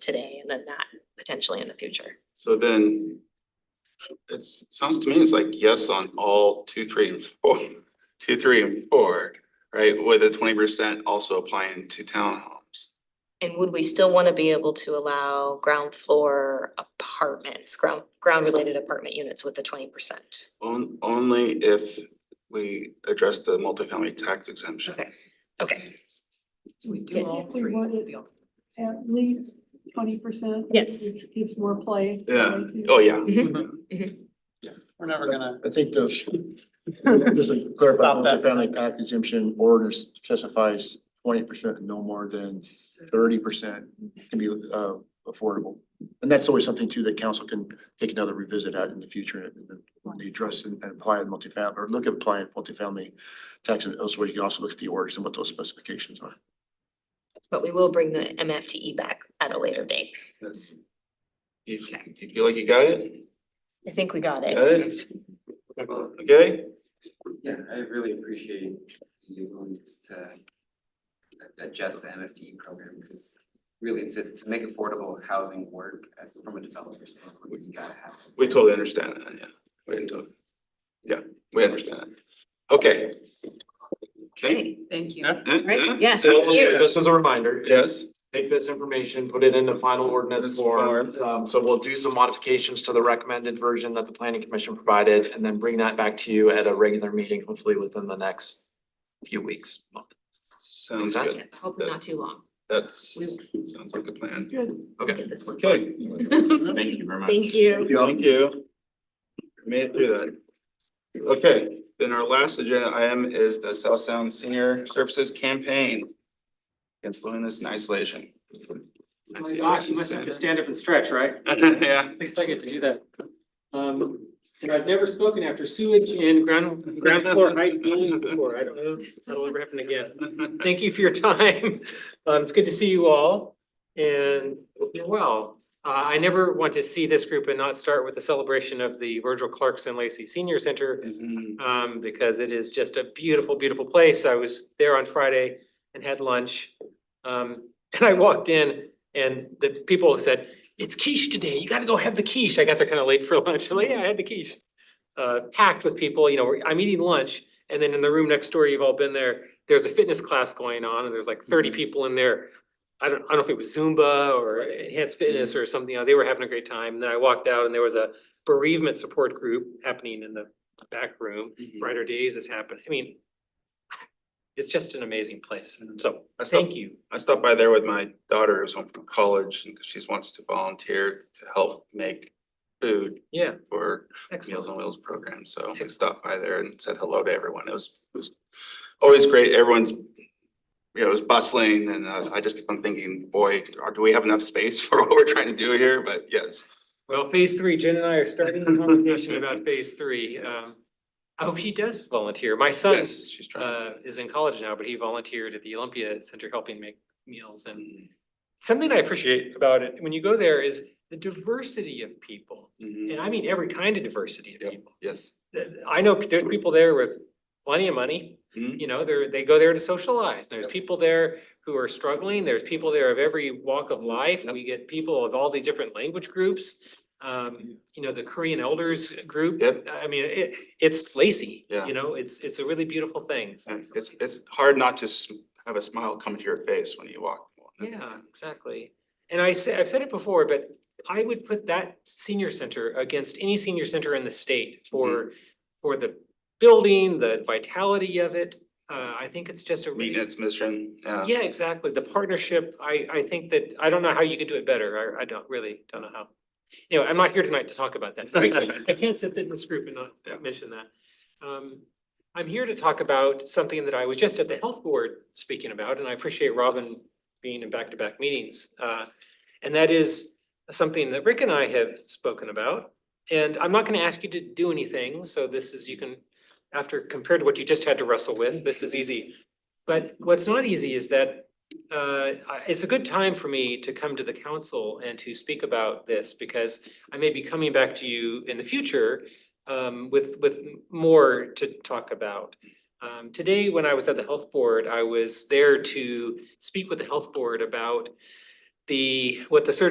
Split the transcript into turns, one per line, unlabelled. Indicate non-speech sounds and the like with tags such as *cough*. today and then that potentially in the future.
So then it's, sounds to me it's like yes on all two, three and four, *laughs* two, three and four, right? With the twenty percent also applying to townhomes.
And would we still wanna be able to allow ground floor apartments, ground, ground related apartment units with the twenty percent?
On, only if we address the multifamily tax exemption.
Okay, okay,
We
Yeah.
do all
We
three.
want it.
We all-
at least twenty percent.
Yes.
Gives more play.
Yeah. Oh, yeah.
Mhm.
We're never gonna,
I think
*laughs*
this, just to clarify,
Stop that.
multifamily tax exemption ordinance specifies twenty percent, no more than thirty percent can be uh affordable. And that's always something too that council can take another revisit at in the future and when they address and and apply the multifamily or look at applying multifamily tax and elsewhere. You can also look at the orders and what those specifications are.
but we will bring the MFTE E back at a later date.
That's. You, f- you feel like you got it?
I think we got
Got
it.
it? Okay,
Yeah, I really appreciate you willingness to a- adjust the MFD E program, because really to to make affordable housing work as from a developer standpoint, you gotta have. it.
we totally understand that, yeah. We totally. Yeah, we understand that. Okay. Okay.
Okay,
Thank you.
Yeah.
Eh,
Right,
eh?
yeah.
So, uh,
Thank you.
just as a reminder,
Yes.
is take this information, put it into final ordinance
Ordinance
form.
form.
Um, so we'll do some modifications to the recommended version that the planning commission provided and then bring that back to you at a regular meeting, hopefully within the next few weeks, month.
Sounds
Makes
good.
sense.
Yeah, hopefully not too long.
That's, sounds like a plan.
Good.
Okay.
Okay.
*laughs*
Thank you very much.
Thank you.
Thank you. Made it through that. Okay, then our last agenda item is the South Sound Senior Services Campaign. Against loneliness and isolation.
Oh my gosh, you must have to stand up and stretch, right?
*laughs* Yeah,
At least I get to do that. Um, and I've never spoken after sewage and ground, ground floor height building before. I don't know, if that'll ever happen again. Thank you for your *laughs* time. Um, it's good to see you all and hope you're well. Uh, I never want to see this group and not start with the celebration of the Virgil Clarkson Lacey Senior Center
Mhm.
um, because it is just a beautiful, beautiful place. I was there on Friday and had lunch. Um, *laughs* and I walked in and the people said, it's quiche today. You gotta go have the quiche. I got there kind of late for *laughs* lunch. I'm Like, yeah, I had the quiche. Uh, packed with people, you know, we're- I'm eating lunch and then in the room next door, you've all been there, there's a fitness class going on and there's like thirty people in there. I don't, I don't know if it was Zumba or enhanced fitness or something, you know, they were having a great time. And then I walked out and there was a bereavement support group happening in the back room. Brighter Days has happened. I mean, *laughs* it's just an amazing place. So
I
thank
stopped,
you.
I stopped by there with my daughter who's home from college and she wants to volunteer to help make food
Yeah,
for Meals
excellent.
on Wheels program, so we stopped by there and said hello to everyone. It was, it was always great. Everyone's, you know, it was bustling and uh, I just kept on thinking, boy, are- do we have enough space *laughs* for what we're trying to do here? But yes.
Well, phase three, Jen and I are starting a conversation
*laughs*
about phase three. Um, I hope she does volunteer. My son
Yes, she's
uh
trying.
is in college now, but he volunteered at the Olympia Center helping make meals and
Mm-hmm.
something I appreciate about it, when you go there is the diversity of people.
Mhm.
And I mean every kind of diversity of
Yep.
people.
Yes.
th- I know there's people there with plenty of money.
Mhm.
You know, they're, they go there to socialize. There's people there who are struggling. There's people there of every walk of life.
Yep.
We get people of all these different language groups. Um, you know, the Korean elders group.
Yep.
I mean, it, it's Lacey,
Yeah.
you know, it's, it's a really beautiful thing.
And It's, it's hard not to s- have a smile come to your face when you walk.
Yeah, exactly. And I say, I've said it before, but I would put that senior center against any senior center in the state for, for the building, the vitality of it. Uh, I think it's just a
Meeting
really,
its mission, yeah.
yeah, exactly. The partnership, I, I think that, I don't know how you could do it better. I, I don't, really don't know how. Anyway, I'm not here tonight to talk about that.
*laughs*
I- I can't sit in this group and
Yeah.
not mention that. Um, I'm here to talk about something that I was just at the health board speaking about, and I appreciate Robin being in back-to-back meetings. Uh, and that is something that Rick and I have spoken about. And I'm not gonna ask you to do anything, so this is, you can, after, compared to what you just had to wrestle with, this is easy. But what's not easy is that, uh, I- it's a good time for me to come to the council and to speak about this because I may be coming back to you in the future um with with more to talk about. Um today, when I was at the health board, I was there to speak with the health board about the, what the surgeon